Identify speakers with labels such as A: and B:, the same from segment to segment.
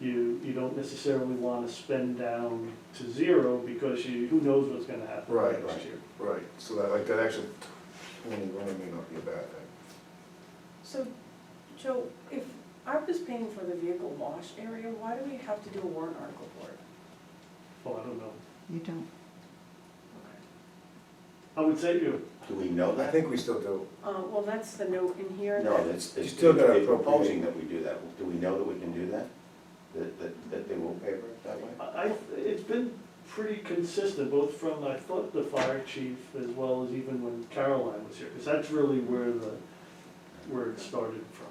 A: you, you don't necessarily wanna spend down to zero because you, who knows what's gonna happen
B: Right,
A: next
B: right.
A: year.
B: Right, so that, like, that actual twenty running may not be a bad thing.
C: So, Joe, if I was paying for the vehicle wash area, why do we have to do a warrant article for it?
A: Oh, I don't know.
D: You don't.
A: I would say you,
E: Do we know
B: I
E: that?
B: think we still do.
C: Uh, well, that's the note in here.
E: No,
C: that-
E: it's,
B: You
E: it's
B: still gotta
E: they're
B: appropriate.
E: proposing that we do that. Do we know that we can do that? That, that, that they will favor it that way?
A: I, I- it's been pretty consistent, both from, I thought, the fire chief as well as even when Caroline was here, cause that's really where the, where it started from.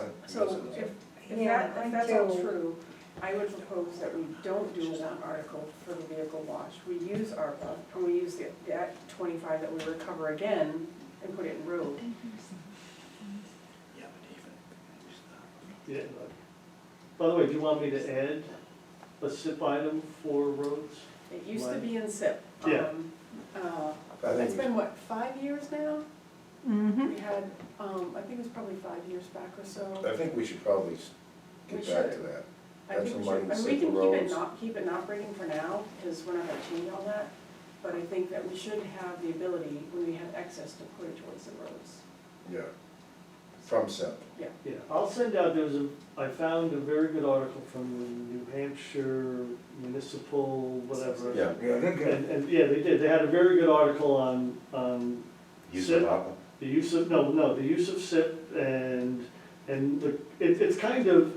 B: That-
C: So if, if
F: Yeah,
C: that,
F: I'm
C: if that's all
F: too.
C: true, I would propose that we don't do a warrant article for the vehicle wash. We use ARPA, and we use the- that twenty-five that we recover again and put it in road.
A: Yeah. By the way, do you want me to add a SIP item for roads?
C: It used to
A: Right.
C: be in SIP.
A: Yeah.
C: Um, uh,
B: I
C: It's
B: think,
C: been,
B: we-
C: what, five years now?
D: Mm-hmm.
C: We had, um, I think it was probably five years back or so.
B: I think we should probably s-
C: We
B: get back to
C: should.
B: that.
C: I
B: that's
C: think we
B: the money
C: should,
B: to
C: and we
B: set
C: can
B: the
C: keep it
B: roads.
C: not, keep it not breaking for now, because we're not gonna change all that. But I think that we should have the ability, when we have excess, to put it towards the roads.
B: Yeah. From SEP.
A: Yeah, I'll send out, there's a, I found a very good article from the New Hampshire Municipal, whatever.
E: Yeah,
B: Yeah, they're
A: And, and, yeah, they did, they had a very good article on, on
E: use
A: Sid?
E: of ARPA.
A: the use of, no, no, the use of SIP and, and the, it, it's kind of,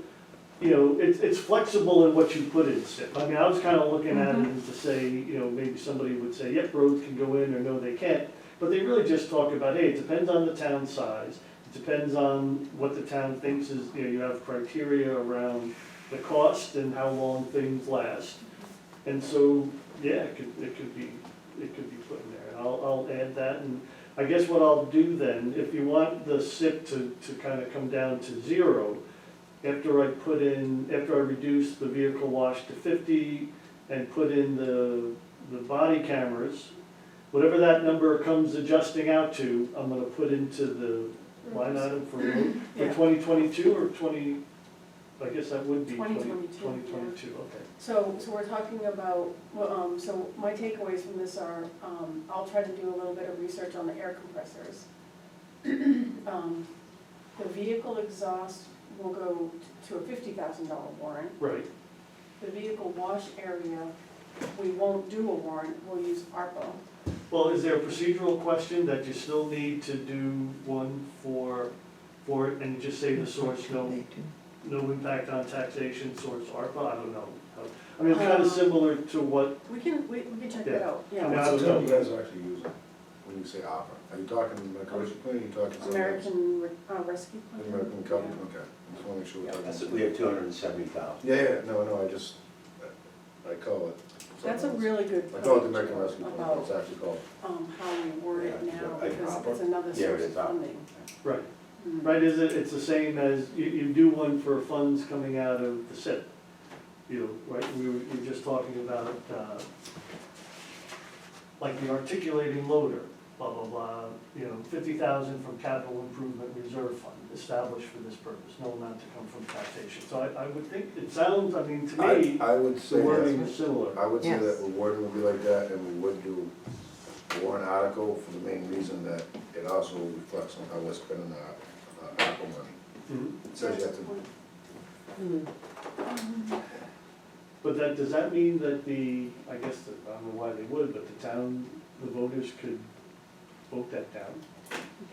A: you know, it's, it's flexible in what you put in SIP. I mean, I was kind of looking at it as to say, you know, maybe somebody would say, yep, roads can go in, or no, they can't. But they really just talk about, hey, it depends on the town size, it depends on what the town thinks is, you know, you have criteria around the cost and how long things last. And so, yeah, it could, it could be, it could be put in there. And I'll, I'll add that, and I guess what I'll do then, if you want the SIP to, to kind of come down to zero, after I put in, after I reduce the vehicle wash to fifty and put in the, the body cameras, whatever that number comes adjusting out to, I'm gonna put into the line item for,
C: Mm-hmm. Yeah.
A: for twenty twenty-two or twenty, I guess that would be twenty,
C: 2022, yeah.
A: twenty twenty-two, okay.
C: So, so we're talking about, well, um, so my takeaways from this are, um, I'll try to do a little bit of research on the air compressors. Um, The vehicle exhaust will go t- to a fifty thousand dollar warrant.
A: Right,
C: The vehicle wash area, we won't do a warrant, we'll use ARPA.
A: well, is there a procedural question that you still need to do one for, for, it and just say the source, no
D: They do.
A: no impact on taxation source ARPA, I don't know. I mean, it's kind of similar to what,
C: We can, we, we can check that
A: Yeah.
C: out,
A: I mean,
C: yeah.
A: I
B: What's
A: don't
B: the term you
A: know.
B: guys are actually using when you say opera? Are you talking like commercial plan, or you talking something else?
C: American Re- uh, Rescue Plan.
B: American company, okay. Just wanna make sure we're
C: Yeah,
B: talking.
E: That's, we have two hundred and seventy thousand.
B: Yeah, yeah, no, no, I just, I- I call it.
C: That's a
B: something
C: really good.
B: else. I call it the
C: point,
B: American Rescue Plan, but
C: About
B: it's actually called.
C: um, how we word it
E: Yeah,
C: now,
E: I-
C: because
E: proper.
C: it's another
E: Yeah, it
C: source of
E: is up.
C: funding.
A: right,
C: Mm.
A: right, is it, it's the same as, you, you do one for funds coming out of the SIP. You know, right, we were, you were just talking about, uh, like the articulating loader, blah, blah, blah, you know, fifty thousand from capital improvement reserve fund established for this purpose, no amount to come from taxation. So I, I would think, it sounds, I mean, to
B: I,
A: me,
B: I would say
A: the wording
B: that,
A: is similar.
B: I would say that
D: Yes.
B: the wording would be like that, and we would do a warrant article for the main reason that it also reflects on how we're spending our, our ARPA money.
A: Mhm.
B: It says you have to,
A: But that, does that mean that the, I guess, the- I don't know why they would, but the town, the voters could vote that down?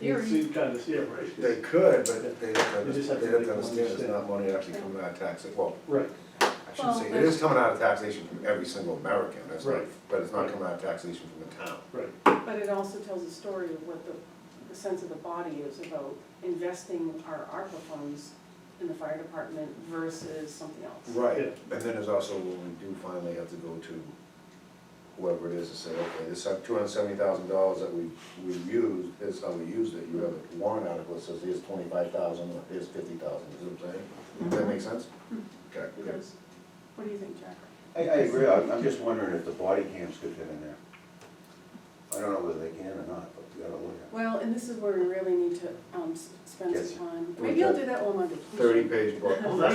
A: It seemed kind of, yeah, right,
B: they could, but they
A: You just
B: don't,
A: have to
B: they don't
A: make them
B: understand it's
A: understand.
B: not money actually coming out of tax, well,
A: right,
B: I shouldn't say, it
C: Well,
B: is coming out of taxation from every single American, that's not,
A: Right.
B: but it's not coming out of taxation from the town.
A: right.
C: But it also tells a story of what the, the sense of the body is about investing our ARPA funds in the fire department versus something else.
B: Right, and then there's also when we do finally have to go to whoever it is to say, okay, this two hundred seventy thousand dollars that we, we used, this is how we used it, you have a warrant article that says here's twenty-five thousand, or here's fifty thousand, you see what I'm saying? Does that make sense? Okay,
C: It
B: good.
C: does. What do you think, Jack?
E: I, I agree, I'm, I'm just wondering if the body cams could fit in there. I don't know whether they can or not, but we gotta look at
C: Well, and this is where we really need to, um, s- spend
E: Yes.
C: some time. Maybe I'll do that while I'm on vacation.
B: Thirty page book.
A: Well, that-